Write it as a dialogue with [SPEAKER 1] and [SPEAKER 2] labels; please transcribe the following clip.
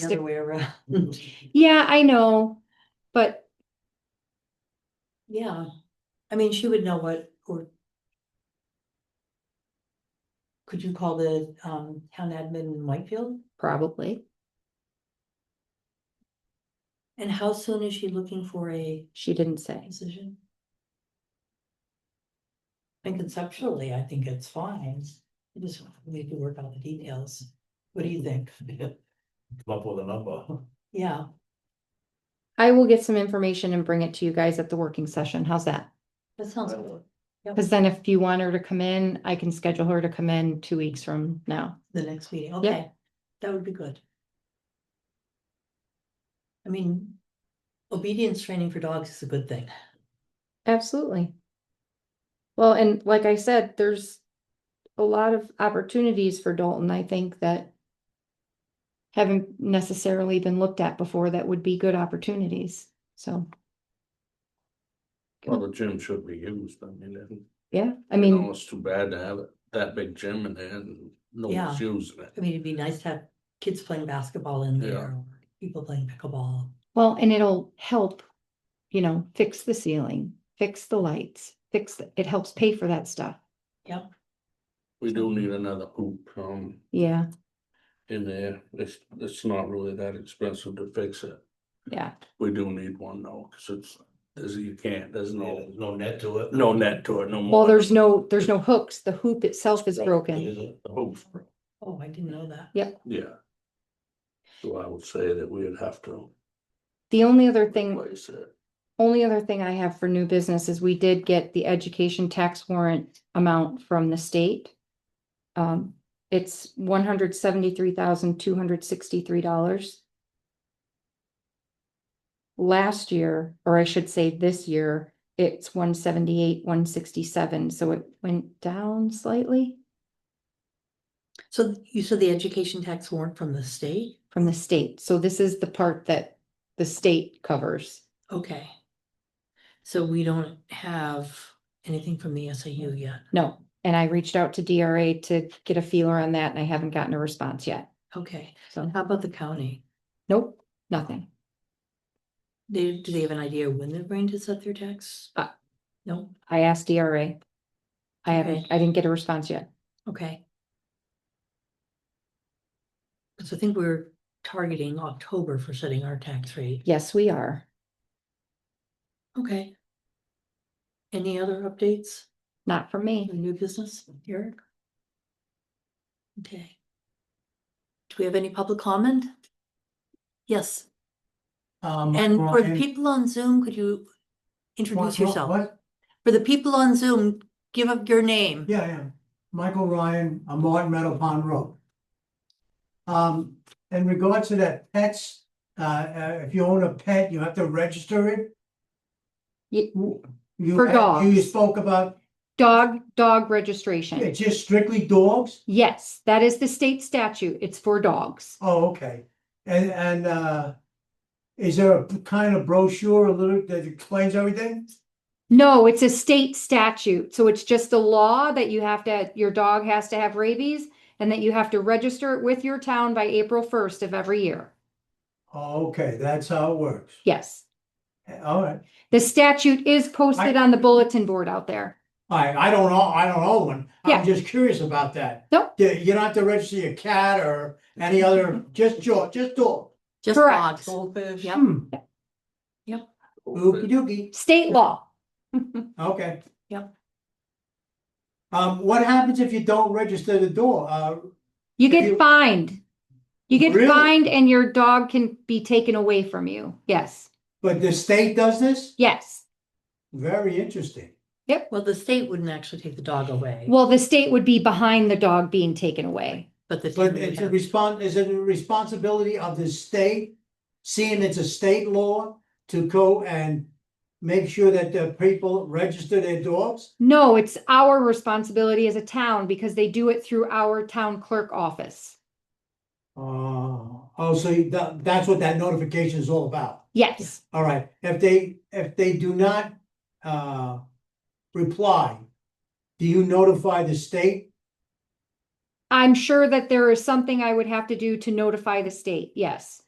[SPEAKER 1] The other way around.
[SPEAKER 2] Yeah, I know, but
[SPEAKER 1] Yeah, I mean, she would know what, or. Could you call the um town admin in Whitefield?
[SPEAKER 2] probably
[SPEAKER 1] And how soon is she looking for a
[SPEAKER 2] she didn't say.
[SPEAKER 1] decision? And conceptually, I think it's fine, I just need to work out the details. What do you think?
[SPEAKER 3] come up with a number.
[SPEAKER 1] Yeah,
[SPEAKER 2] I will get some information and bring it to you guys at the working session. How's that?
[SPEAKER 1] that sounds good.
[SPEAKER 2] Because then if you want her to come in, I can schedule her to come in two weeks from now.
[SPEAKER 1] The next meeting, okay, that would be good. I mean, obedience training for dogs is a good thing.
[SPEAKER 2] Absolutely. Well, and like I said, there's a lot of opportunities for Dalton, I think that haven't necessarily been looked at before that would be good opportunities. So,
[SPEAKER 4] Well, the gym should be used, I mean, it-
[SPEAKER 2] yeah, I
[SPEAKER 4] you know,
[SPEAKER 2] mean,
[SPEAKER 4] it's too bad to have it- that big gym and then no
[SPEAKER 1] Yeah.
[SPEAKER 4] one's using it.
[SPEAKER 1] I mean, it'd be nice to have kids playing basketball in
[SPEAKER 4] Yeah.
[SPEAKER 1] there, or people playing pickleball.
[SPEAKER 2] well, and it'll help, you know, fix the ceiling, fix the lights, fix, the- it helps pay for that stuff.
[SPEAKER 4] We do need another hoop, um,
[SPEAKER 2] Yeah,
[SPEAKER 4] in there, it's, it's not really that expensive to fix it.
[SPEAKER 2] yeah.
[SPEAKER 4] We do need one though, cause it's, there's, you can't, there's
[SPEAKER 3] No,
[SPEAKER 4] no,
[SPEAKER 3] no net to it.
[SPEAKER 4] no net to it, no more.
[SPEAKER 2] Well, there's no, there's no hooks. The hoop itself is
[SPEAKER 3] Right,
[SPEAKER 2] broken.
[SPEAKER 3] is it?
[SPEAKER 4] The hoop's broke,
[SPEAKER 1] Oh, I didn't know that.
[SPEAKER 4] Yeah. So I would say that we'd have to
[SPEAKER 2] The only other thing
[SPEAKER 4] replace it.
[SPEAKER 2] Only other thing I have for new business is we did get the education tax warrant amount from the state. Um, it's one hundred seventy-three thousand, two hundred sixty-three dollars. Last year, or I should say this year, it's one seventy-eight, one sixty-seven, so it went down slightly
[SPEAKER 1] So you said the education tax warrant from the state?
[SPEAKER 2] from the state. So this is the part that the state covers.
[SPEAKER 1] Okay. So we don't have anything from the SAU yet.
[SPEAKER 2] No, and I reached out to DRA to get a feeler on that and I haven't gotten a response yet,
[SPEAKER 1] Okay,
[SPEAKER 2] so.
[SPEAKER 1] how about the county?
[SPEAKER 2] Nope, nothing.
[SPEAKER 1] They, do they have an idea when they're going to set their tax?
[SPEAKER 2] Uh.
[SPEAKER 1] No,
[SPEAKER 2] I asked DRA. I haven't,
[SPEAKER 1] Okay.
[SPEAKER 2] I didn't get a response yet.
[SPEAKER 1] okay. So I think we're targeting October for setting our tax rate.
[SPEAKER 2] Yes, we are.
[SPEAKER 1] Okay. Any other updates?
[SPEAKER 2] Not for me.
[SPEAKER 1] Any New business, Eric? Okay. Do we have any public comment? Yes,
[SPEAKER 5] Um.
[SPEAKER 1] and for the
[SPEAKER 5] Ryan-
[SPEAKER 1] people on Zoom, could you
[SPEAKER 5] What-
[SPEAKER 1] introduce
[SPEAKER 5] what-
[SPEAKER 1] yourself?
[SPEAKER 5] what?
[SPEAKER 1] For the people on Zoom, give up your name.
[SPEAKER 5] Yeah, yeah. Michael Ryan, I'm Martin Meadow Pond Road. Um, in regards to that pets, uh, uh, if you own a pet, you have to register it?
[SPEAKER 2] Ye-
[SPEAKER 5] W- You,
[SPEAKER 2] For
[SPEAKER 5] had- you
[SPEAKER 2] dogs.
[SPEAKER 5] spoke about,
[SPEAKER 2] Dog, dog
[SPEAKER 5] it's
[SPEAKER 2] registration.
[SPEAKER 5] just strictly dogs?
[SPEAKER 2] Yes, that is the state statute. It's for dogs.
[SPEAKER 5] Oh, okay. And, and, uh, is there a kind of brochure, a little, that explains everything?
[SPEAKER 2] No, it's a state statute. So it's just a law that you have to, your dog has to have rabies and that you have to register it with your town by April first of every year.
[SPEAKER 5] Oh, okay, that's how it works.
[SPEAKER 2] Yes,
[SPEAKER 5] All right.
[SPEAKER 2] the statute is posted on the bulletin board out there.
[SPEAKER 5] I, I don't know, I don't own one.
[SPEAKER 2] Yeah.
[SPEAKER 5] I'm just curious about that.
[SPEAKER 2] Nope.
[SPEAKER 5] Yeah, You don't have to register your cat or any other, just dog, just dog.
[SPEAKER 1] Just
[SPEAKER 2] Correct.
[SPEAKER 1] dogs.
[SPEAKER 3] Goldfish.
[SPEAKER 1] Yep.
[SPEAKER 5] Hmm, Okey
[SPEAKER 4] Hope it-
[SPEAKER 5] dokey,
[SPEAKER 2] State law.
[SPEAKER 5] okay.
[SPEAKER 1] Yep.
[SPEAKER 5] Um, what happens if you don't register the dog? Uh,
[SPEAKER 2] You get
[SPEAKER 5] You-
[SPEAKER 2] fined. You get
[SPEAKER 5] Really?
[SPEAKER 2] fined and your dog can be taken away from you. Yes,
[SPEAKER 5] but the state does this?
[SPEAKER 2] yes.
[SPEAKER 5] Very interesting.
[SPEAKER 1] Well, the state wouldn't actually take the dog away,
[SPEAKER 2] Well, the state would be behind the dog being taken away.
[SPEAKER 1] but the. town
[SPEAKER 5] But
[SPEAKER 1] would
[SPEAKER 5] it's a
[SPEAKER 1] have-
[SPEAKER 5] respon is it a responsibility of the state? Seeing it's a state law to go and make sure that the people register their dogs?
[SPEAKER 2] No, it's our responsibility as a town because they do it through our town clerk office.
[SPEAKER 5] Uh, oh, so you- that, that's what that notification is all about?
[SPEAKER 2] Yes,
[SPEAKER 5] All right, if they, if they do not, uh, reply, do you notify the state?
[SPEAKER 2] I'm sure that there is something I would have to do to notify the state. Yes.